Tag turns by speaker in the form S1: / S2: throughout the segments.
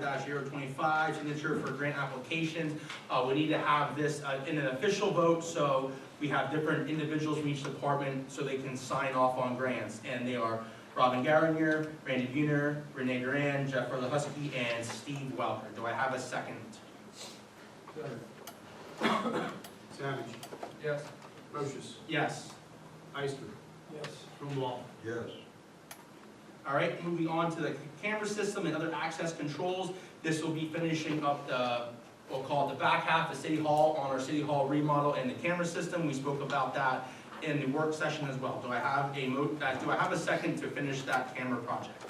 S1: 2025-025, signature for grant applications. Uh, We need to have this uh, in an official vote, so we have different individuals from each department so they can sign off on grants. And they are Robin Garnier, Randy Buhner, Renee Duran, Jeff Husky, and Steve Welker. Do I have a second?
S2: Savage.
S3: Yes.
S2: Procius.
S1: Yes.
S2: Ister.
S3: Yes.
S2: Brumbault.
S4: Yes.
S1: All right, moving on to the camera system and other access controls. This will be finishing up the, we'll call it the back half of City Hall on our City Hall remodel and the camera system. We spoke about that in the work session as well. Do I have a mo, uh, do I have a second to finish that camera project?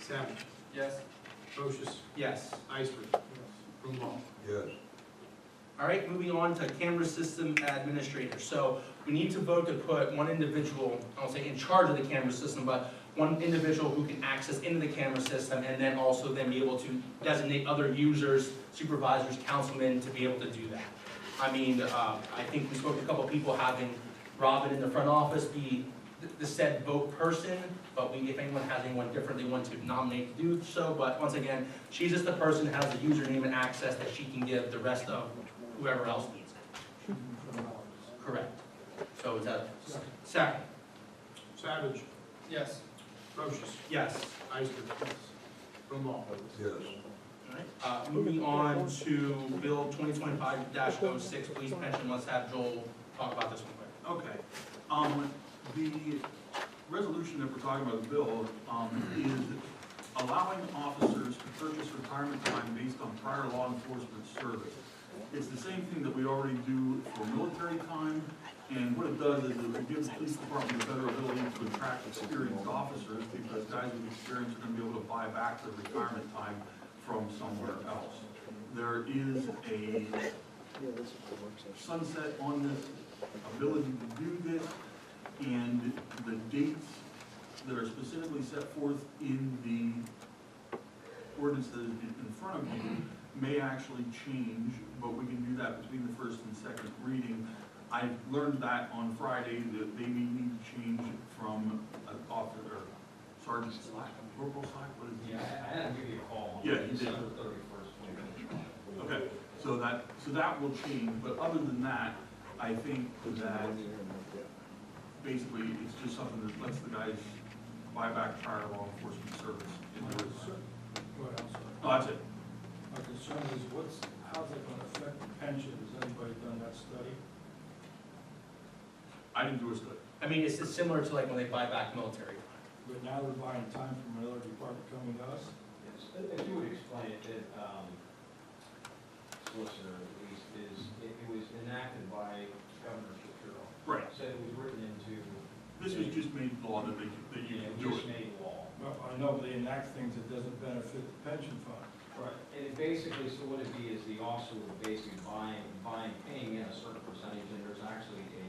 S2: Savage.
S3: Yes.
S2: Procius.
S1: Yes.
S2: Ister. Brumbault.
S4: Yes.
S1: All right, moving on to camera system administrator. So we need to vote to put one individual, I don't say in charge of the camera system, but one individual who can access into the camera system and then also then be able to designate other users, supervisors, councilmen to be able to do that. I mean, uh, I think we spoke to a couple people having Robin in the front office be th- the said vote person, but we, if anyone has anyone different they want to nominate to do so, but once again, She's just the person who has the username and access that she can give the rest of whoever else needs it. Correct. So is that, second,
S2: Savage.
S3: Yes.
S2: Procius.
S1: yes.
S2: Ister. Brumbault.
S4: Yes.
S1: Alright, Uh, moving on to Bill twenty twenty-five 6 police pension, let's have Joel talk about this one quick.
S5: Okay, um, the resolution that we're talking about, the bill, um, is allowing officers to purchase retirement time based on prior law enforcement service. It's the same thing that we already do for military time, and what it does is it gives the police department a better ability to attract experienced officers, because guys with experience are gonna be able to buy back their retirement time from somewhere else. There is a sunset on this ability to do this, and the dates that are specifically set forth in the ordinance that is in front of you may actually change, but we can do that between the first and second reading. I learned that on Friday, that they may need to change from an officer, or sergeant slack, corporal slack, what is it?
S6: Yeah, I I had to give you a call.
S5: Yeah, you did.
S6: December thirty-first, when you're
S5: Okay, so that, so that will change, but other than that, I think that basically it's just something that lets the guys buy back prior law enforcement service. in other words.
S3: What else?
S5: No, that's it.
S3: My concern is what's, how's it gonna affect the pension? Has anybody done that study?
S5: I didn't do a study.
S1: I mean, it's it's similar to like when they buy back military.
S3: But now they're buying time from another department coming to us?
S6: If you would explain it, that, um, solicitor, at least, is, it it was enacted by Governor Shapiro.
S5: Right.
S6: So it was written into,
S5: This was just made law that they, that you
S6: you
S5: can
S6: know,
S5: do
S6: just
S5: it.
S6: made law.
S3: Well, I know they enact things that doesn't benefit the pension fund.
S6: Right. And it basically, so what it'd be is the officer would basically buying, buying, paying in a certain percentage, and there's actually a,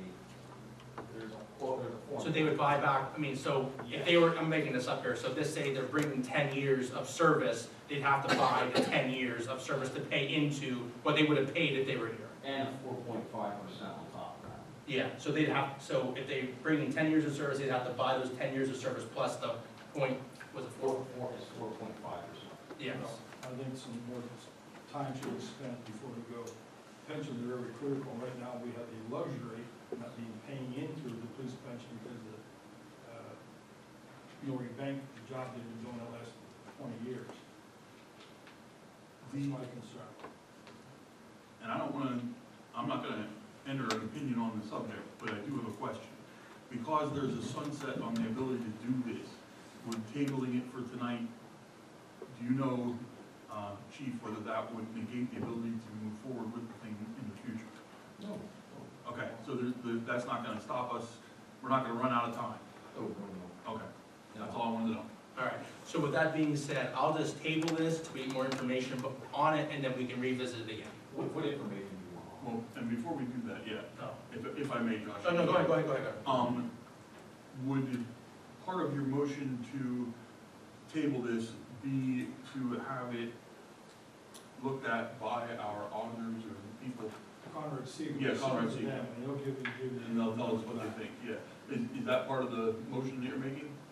S6: there's a, well, there's a form.
S1: So they would buy back, I mean, so if they were, I'm making this up here, so this say they're bringing ten years of service, they'd have to buy the ten years of service to pay into what they would have paid if they were here.
S6: And a four point five percent on top of that.
S1: Yeah, so they'd have, so if they bring in ten years of service, they'd have to buy those ten years of service plus the point, was it
S6: Four,
S1: four?
S6: four is four point five percent.
S1: Yes.
S3: I think some more time should be spent before we go. Pensions are very critical. Right now, we have the luxury of not being paying into the police pension because of, uh, Nori Bank, the job they've been doing the last twenty years. That's my concern.
S5: And I don't wanna, I'm not gonna enter an opinion on the subject, but I do have a question. Because there's a sunset on the ability to do this, we're tabling it for tonight. Do you know, uh, chief, whether that would negate the ability to move forward with the thing in the future?
S6: No.
S5: Okay, so there's, the- that's not gonna stop us, we're not gonna run out of time.
S6: Oh, no, no.
S5: Okay, that's all I wanted to know.
S1: All right, so with that being said, I'll just table this to get more information on it, and then we can revisit it again.
S6: What, what information do you want?
S5: Well, and before we do that, yeah,
S1: No,
S5: if, if I may, Josh.
S1: Oh, no, no, go ahead, go ahead, go ahead.
S5: Um, would part of your motion to table this be to have it looked at by our auditors or the people,
S3: Conrad Siegel.
S5: Yeah, Conrad
S3: sends
S5: Siegel.
S3: them, And he'll give you, give you.
S5: and they'll tell us what they think, yeah. Is, is that part of the motion that you're making?